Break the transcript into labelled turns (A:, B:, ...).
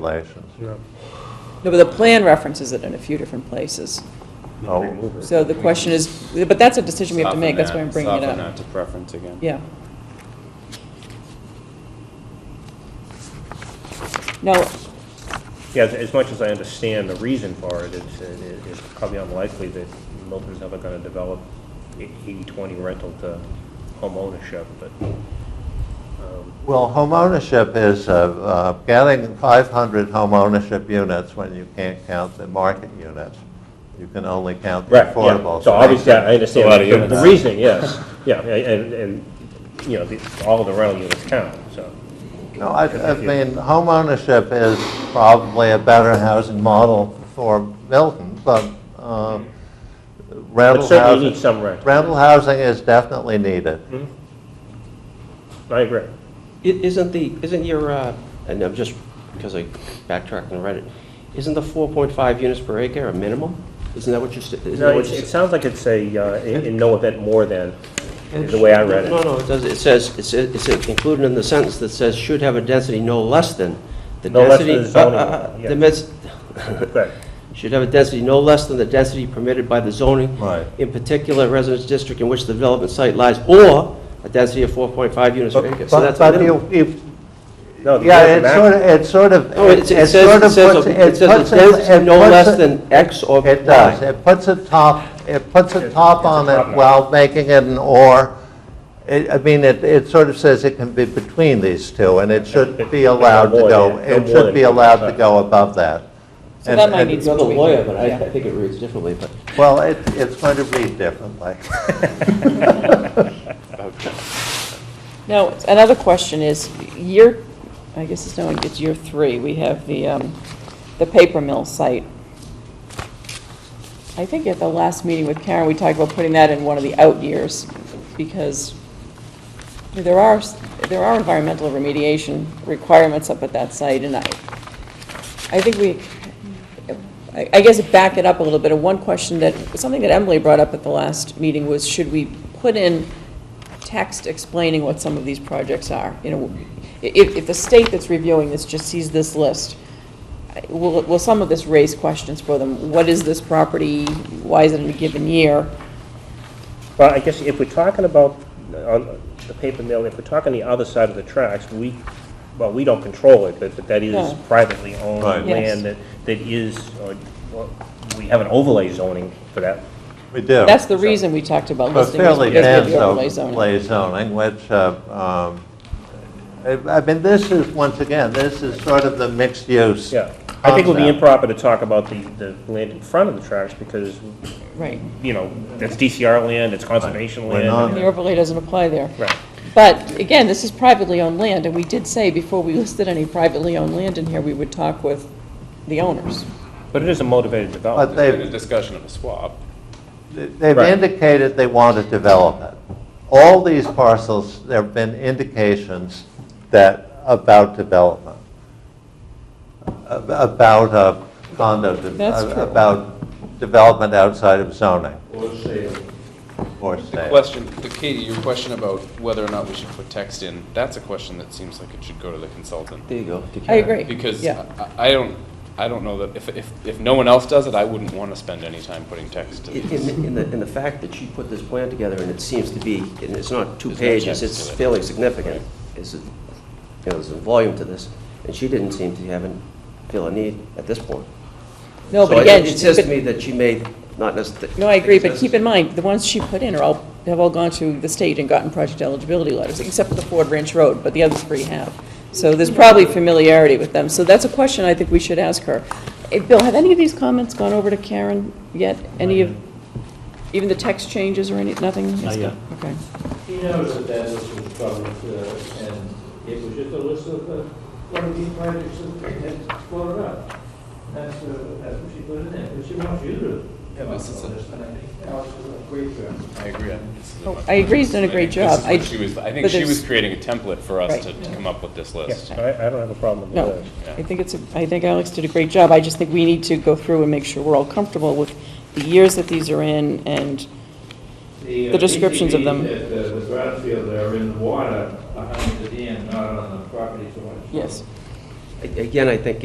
A: regulations.
B: Yeah.
C: No, but the plan references it in a few different places.
A: Oh,
C: So the question is, but that's a decision we have to
D: Soften
C: make, that's why
D: that-
C: I'm bringing it
D: Soften
C: up.
D: that to preference again.
C: Yeah. Now,
E: Yeah, as- as much as I understand the reason for it, it's, it- it- it's probably unlikely that Milton's ever gonna develop eighty-twenty rental to home ownership, but, um,
A: well, homeownership is, uh, uh, getting 500 homeownership units when you can't count the market units. You can only count the
E: right, yeah.
A: affordable.
E: So obviously, I
D: A lot of
E: understand the- the
D: units.
E: reasoning, yes, yeah, and, and, you know, the- all the rental units count, so.
A: No, I, I mean, homeownership is probably a better housing model for Milton, but uh,
E: But
A: rental
E: certainly need
A: housing,
E: some rent,
A: rental housing is definitely needed.
E: I agree.
F: I- Isn't the, isn't your, uh, and I'm just, because I backtracked and read it, isn't the 4.5 units per acre a minimum? Isn't that what you're, st- isn't that
E: No,
F: what
E: it,
F: you're...
E: it
F: s-
E: sounds like it's a, uh, in in no event more than, is the way I read
F: No,
E: it.
F: no, it does, it says, it says- it's included in the sentence that says should have a density no less than the
E: No less than
F: density...
E: the zoning,
F: uh, uh, uh,
E: yeah.
F: The mis-
E: Right.
F: should have a density no less than the density permitted by the zoning.
A: Right.
F: In particular residence district in which the development site lies, or a density of 4.5 units per acre. So
A: But
F: that's a
A: but
F: minimum.
A: you, you-
E: No, the
A: yeah,
E: minimum
A: it sort of, it sort of,
F: No,
A: it
F: it
A: it
F: it
A: sort
F: says, it
A: of
F: says,
A: puts,
F: it
A: it puts,
F: says
A: it
F: a density no
A: puts
F: less
A: it-
F: than X or
A: It does,
F: Y.
A: it puts a top, it puts a
E: It's-
A: top
E: it's a
A: on
E: top
A: it
E: knot.
A: while making it an or. It- I mean, it, it sort of says it can be between these two, and it should be
E: No
A: allowed to
E: more
A: go,
E: than- no
A: it
E: more
A: should
E: than
A: be allowed to
E: forty-five.
A: go above that.
C: So
A: And-
C: that might
A: and-
C: need
F: You're the lawyer, but I
C: Yeah.
F: I think it reads differently, but
A: Well, it, it's going to read differently.
C: now, another question is, year, I guess it's no, it's year three, we have the, um, the paper mill site. I think at the last meeting with Karen, we talked about putting that in one of the out years, because there are, s- there are environmental remediation requirements up at that site, and I, I think we, I I guess back it up a little bit, and one question that, something that Emily brought up at the last meeting was, should we put in text explaining what some of these projects are? You know, i- if, if the state that's reviewing this just sees this list, I- will, will some of this raise questions for them? What is this property? Why is it in a given year?
E: Well, I guess if we're talking about, uh, on the paper mill, if we're talking the other side of the tracks, we, well, we don't control it, but, but that is
C: No.
E: privately owned
A: Right.
C: Yes.
E: land that, that is, or, well, we have an overlay zoning for that.
A: We do.
C: That's the reason we talked about
A: Well,
C: listing this,
A: fairly
C: because
A: dense
C: of the overlay zoning.
A: overlay zoning, which, uh, um, I I mean, this is, once again, this is sort of the mixed use.
E: Yeah. I think it would be
A: concept.
E: improper to talk about the, the land in front of the tracks because,
C: Right.
E: you know, that's DCR land, it's conservation
A: We're
E: land.
A: not-
C: The overlay doesn't apply there.
E: Right.
C: But again, this is privately owned land, and we did say before we listed any privately owned land in here, we would talk with the owners.
E: But it is a motivated
A: But
E: development.
D: There's been
A: they've,
D: a discussion of a swap.
A: They've
E: Right.
A: indicated they want to develop it. All these parcels, there have been indications that, about development, ab- about uh, condo, de-
C: That's
A: uh,
C: true.
A: about development outside of zoning. Or
D: The
A: sale.
D: question, the- Katie, your question about whether or not we should put text in, that's a question that seems like it should go to the consultant.
F: there you go. to
C: I
F: Karen.
C: agree.
D: Because
C: Yeah.
D: I I don't, I don't know that, if, if, if no one else does it, I wouldn't want to spend any time putting text in.
F: In, in- in the, in the fact that she put this plan together, and it seems to be, and it's not two
D: There's no
F: pages,
D: text
F: it's
D: to it.
F: fairly significant, is, it- you know, there's a volume to this, and she didn't seem to have, an- feel a need at this point.
C: No,
F: So
C: but
F: I-
C: again,
F: It says to
C: but-
F: me that she may not necessarily.
C: No, I agree, but keep in mind, the ones she put in are all, have all gone to the state and gotten project eligibility letters, except for the Ford Ranch Road, but the other three have. So there's probably familiarity with them, so that's a question I think we should ask her. Eh, Bill, have any of these comments gone over to Karen yet? Any of, even the text changes or any, nothing?
B: Not yet.
C: Okay.
G: He knows that that list was public, uh, and it was just a list of uh, what are these projects that had floated up. That's, uh, that's what she put in there, but she wants you to have a
D: This is a-
G: list, and I think Alex is a great job.
D: I agree. I think this is a
C: Oh,
D: much
C: I agree, he's
D: better-
C: done a great
D: I think this is
C: job. I-
D: what she was- I think
C: but
D: she
C: there's-
D: was creating a template for
C: Right.
D: us to come up with this
E: Yes,
D: list.
E: I, I don't have a problem with
C: No,
E: that.
C: I think it's, a- I think Alex did a great job. I just think we need to go through and make sure we're all comfortable with the years that these are in and,
G: uh,
C: The descriptions of
G: PCBs
C: them.
G: At uh, the, the brownfield are in the water behind the dam, not on the property so much.
C: yes.
F: Again, I think